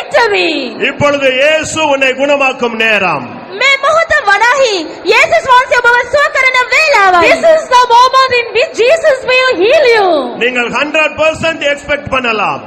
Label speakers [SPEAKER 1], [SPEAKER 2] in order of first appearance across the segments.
[SPEAKER 1] recovery.
[SPEAKER 2] இப்பொழுது இயேசு உன்னை குணமாக்கும் நேரம்
[SPEAKER 3] මේ මොහොත වනාහි යේසුස් වහන්සේ ඔබව සුව කරන
[SPEAKER 1] This
[SPEAKER 3] වේලාවයි.
[SPEAKER 1] is the moment in which Jesus will heal you.
[SPEAKER 2] நீங்கள் ஹண்ட்ரட் பர்சன்ட் எக்ஸ்பெக்ட் பண்ணலாம்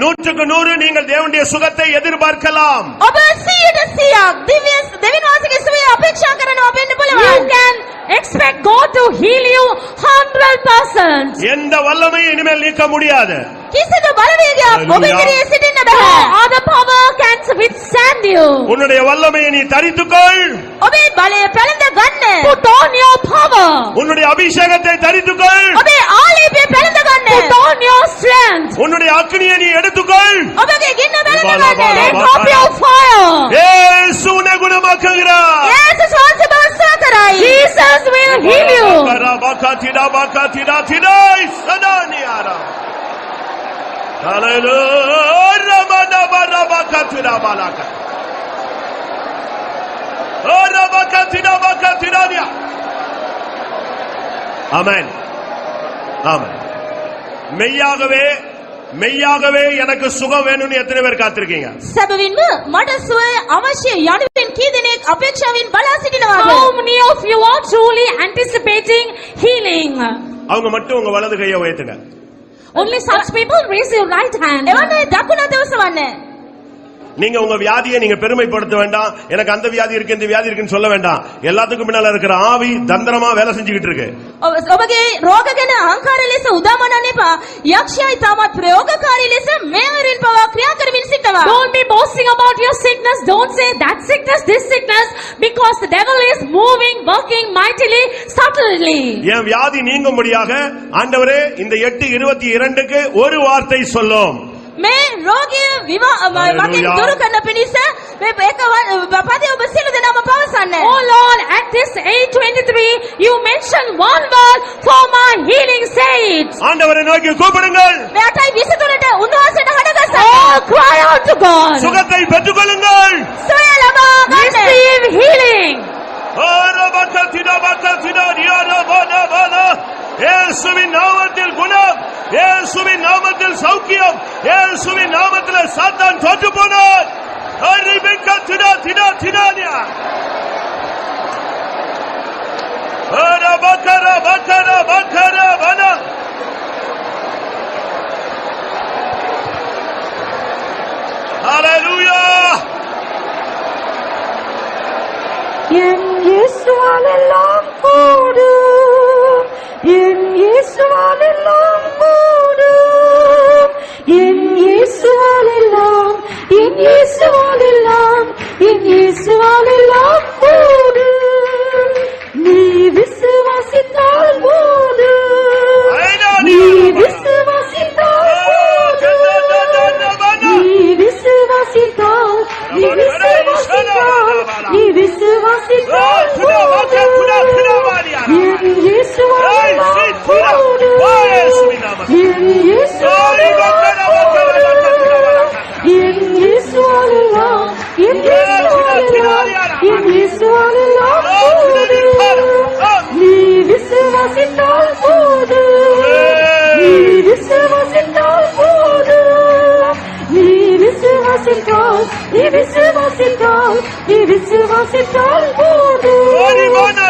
[SPEAKER 2] நூற்றுக்கு நூறு நீங்கள் தேவனுடைய சுகத்தை எதிர்பார்க்கலாம்
[SPEAKER 3] ඔබ 100ට 100ක් දිව්‍ය දෙවියන් වහන්සේගේ සුවය අපේක්ෂා කරනවා වෙන්න
[SPEAKER 1] You
[SPEAKER 3] පුළුවන්.
[SPEAKER 1] can expect God to heal you 100%.
[SPEAKER 2] எந்த வல்லமையும் இனிமேல் நீக்க முடியாது
[SPEAKER 3] කිසිදු බලවේගයක් ඔබ
[SPEAKER 2] Hallelujah.
[SPEAKER 3] ඉදිරියේ සිටින්න
[SPEAKER 1] No
[SPEAKER 3] බෑ.
[SPEAKER 1] other power can withstand you.
[SPEAKER 2] உன்னுடைய வல்லமையை நீ தரித்துக்கொள்
[SPEAKER 3] ඔබේ බලය පැළඳ ගන්න.
[SPEAKER 1] Put on your power.
[SPEAKER 2] உன்னுடைய அபிஷேகத்தை தரித்துக்கொள்
[SPEAKER 3] ඔබේ ආලේපය පැළඳ
[SPEAKER 1] Put
[SPEAKER 3] ගන්න.
[SPEAKER 1] on your strength.
[SPEAKER 2] உன்னுடைய அக்னியை நீ எடுத்துக்கொள்
[SPEAKER 3] ඔබගේ ගින්න පැළඳ
[SPEAKER 2] බාලා,
[SPEAKER 3] ගන්න.
[SPEAKER 2] බාලා,
[SPEAKER 1] Take up your fire.
[SPEAKER 2] இயேசு உன்னை குணமாக்குகிறார்
[SPEAKER 3] යේසුස් වහන්සේ ඔබව සුව කරයි.
[SPEAKER 1] Jesus will heal you.
[SPEAKER 2] Barabakatida, bakatida, tidai, sadaniara. Hallelujah. Ramana barabakatida, balaka. Oh, rabakatida, bakatida, dia. Amen. Amen. மெய்யாகவே மெய்யாகவே எனக்கு சுகம் வேணும்னு எத்தனை பேர் காத்திருக்கீங்க
[SPEAKER 3] සැබවින්ම මට සුවය අවශ්‍ය යනුවෙන් කී දෙනෙක් අපේක්ෂාවෙන් බලා
[SPEAKER 1] How
[SPEAKER 3] සිටිනවාද?
[SPEAKER 1] many of you are truly anticipating healing?
[SPEAKER 2] அவங்க மட்டும் உங்க வலது கையை உயர்த்துங்க
[SPEAKER 1] Only such people raise your right hand.
[SPEAKER 3] එවන්න දකුණ දවසවන්නේ.
[SPEAKER 2] நீங்க உங்க வியாதியை நீங்க பெருமைப்படுத்த வேண்டாம் எனக்கு அந்த வியாதி இருக்கு இந்த வியாதி இருக்குன்னு சொல்ல வேண்டாம் எல்லாத்துக்கும் பின்னால இருக்கிற ஆவி தந்திரமா வேலை செஞ்சுக்கிட்டு இருக்கு
[SPEAKER 3] ඔබ- ඔබගේ රෝග ගැන අහංකාර ලෙස උදාමනන්න එපා. යක්ෂයයි තාමත් ප්‍රයෝගකාරී ලෙස මේවරින් පවා ක්‍රියා කරමින් සිටවා.
[SPEAKER 1] Don't be boasting about your sickness. Don't say that sickness, this sickness, because the devil is moving, working mightily, subtly.
[SPEAKER 2] என் வியாதி நீங்கும்படியாக ஆண்டவரே இந்த எட்டு இருபத்தி இரண்டுக்கு ஒரு வார்த்தை சொல்லும்
[SPEAKER 3] මේ රෝගය විවා- ම-
[SPEAKER 2] Hallelujah.
[SPEAKER 3] මගෙන් දුරු කරන පිණිස මේ එක ව- පදේ ඔබ සියලු දෙනාම පවසන්න.
[SPEAKER 1] Oh Lord, at this age 23, you mention one word for my healing, say it.
[SPEAKER 2] ஆண்டவரை நோக்கி கூப்பிடுங்கள்
[SPEAKER 3] මේ 8යි 23ට උන්වහන්සේට
[SPEAKER 1] Oh,
[SPEAKER 3] හඩගසන්න.
[SPEAKER 1] cry out to God.
[SPEAKER 2] சுகத்தை பெற்றுக்கொள்ளுங்கள்
[SPEAKER 3] සොය ලබා ගන්න.
[SPEAKER 1] Receive healing.
[SPEAKER 2] ஆரோ பக்க திடோ பக்க திடோ நியாரோ போனோ போனோ. இயேசுவின் நாமத்தில் குணம் இயேசுவின் நாமத்தில் சௌக்கியம் இயேசுவின் நாமத்தில் சாத்தான் தோற்று போனார் அறிவிக்க திடா திடா திடானியா ஆரோ பக்கர பக்கர பக்கர வன Hallelujah!
[SPEAKER 4] என் இயேசுவால் எல்லாம் கூடும் என் இயேசுவால் எல்லாம் கூடும் என் இயேசுவால் எல்லாம் என் இயேசுவால் எல்லாம் என் இயேசுவால் எல்லாம் கூடும் நீ விசுவாசித்தால் போதும் நீ விசுவாசித்தால் போதும் நீ விசுவாசித்தால் நீ விசுவாசித்தால் நீ விசுவாசித்தால் போதும். என் இயேசுவால் எல்லாம் கூடும். என் இயேசுவால் எல்லாம் கூடும். என் இயேசுவால் எல்லாம், என் இயேசுவால் எல்லாம், என் இயேசுவால் எல்லாம் கூடும். நீ விசுவாசித்தால் போதும் நீ விசுவாசித்தால் போதும் நீ விசுவாசித்தால் நீ விசுவாசித்தால் நீ விசுவாசித்தால் போதும் நீ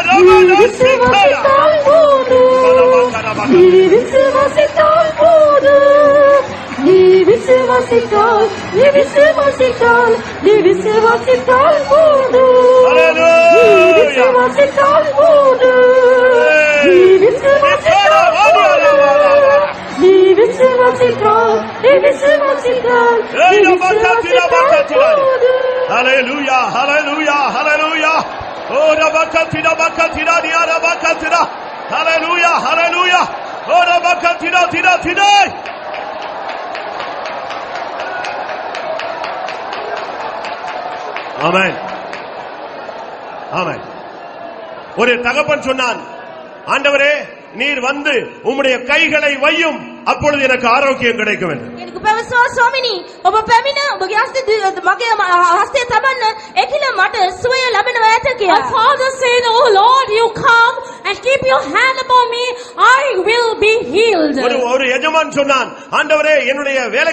[SPEAKER 4] விசுவாசித்தால் போதும் நீ விசுவாசித்தால் போதும் நீ விசுவாசித்தால் நீ விசுவாசித்தால் நீ விசுவாசித்தால் போதும் நீ விசுவாசித்தால் போதும் நீ விசுவாசித்தால் போதும் நீ விசுவாசித்தால் நீ விசுவாசித்தால் நீ விசுவாசித்தால் போதும்
[SPEAKER 2] ஹalleluya ஹalleluya ஹalleluya ஓ ரபகதிட பகதிட நியா ரபகதிட ஹalleluya ஹalleluya ஓ ரபகதிட திட திட ஆமென் ஆமென் ஒரு தகப்பன் சொன்னான் ஆண்டவரே நீர் வந்து உம்முடைய கைகளை வையும் அப்பொழுது எனக்கு ஆரோக்கியம் கிடைக்கும் என்று
[SPEAKER 3] කෙනෙකු පැවසවා ස්වාමිනී ඔබ පැමිණ ඔබගේ හස්ත දි- මගේ ම- හස්තය තබන්න එකිල මට සුවය ලැබෙනවා ඇත
[SPEAKER 1] A
[SPEAKER 3] කියලා.
[SPEAKER 1] father said, Oh Lord, you come and keep your hand upon me, I will be healed.
[SPEAKER 2] ஒரு ஒரு எஜமான் சொன்னான் ஆண்டவரே என்னுடைய வேலை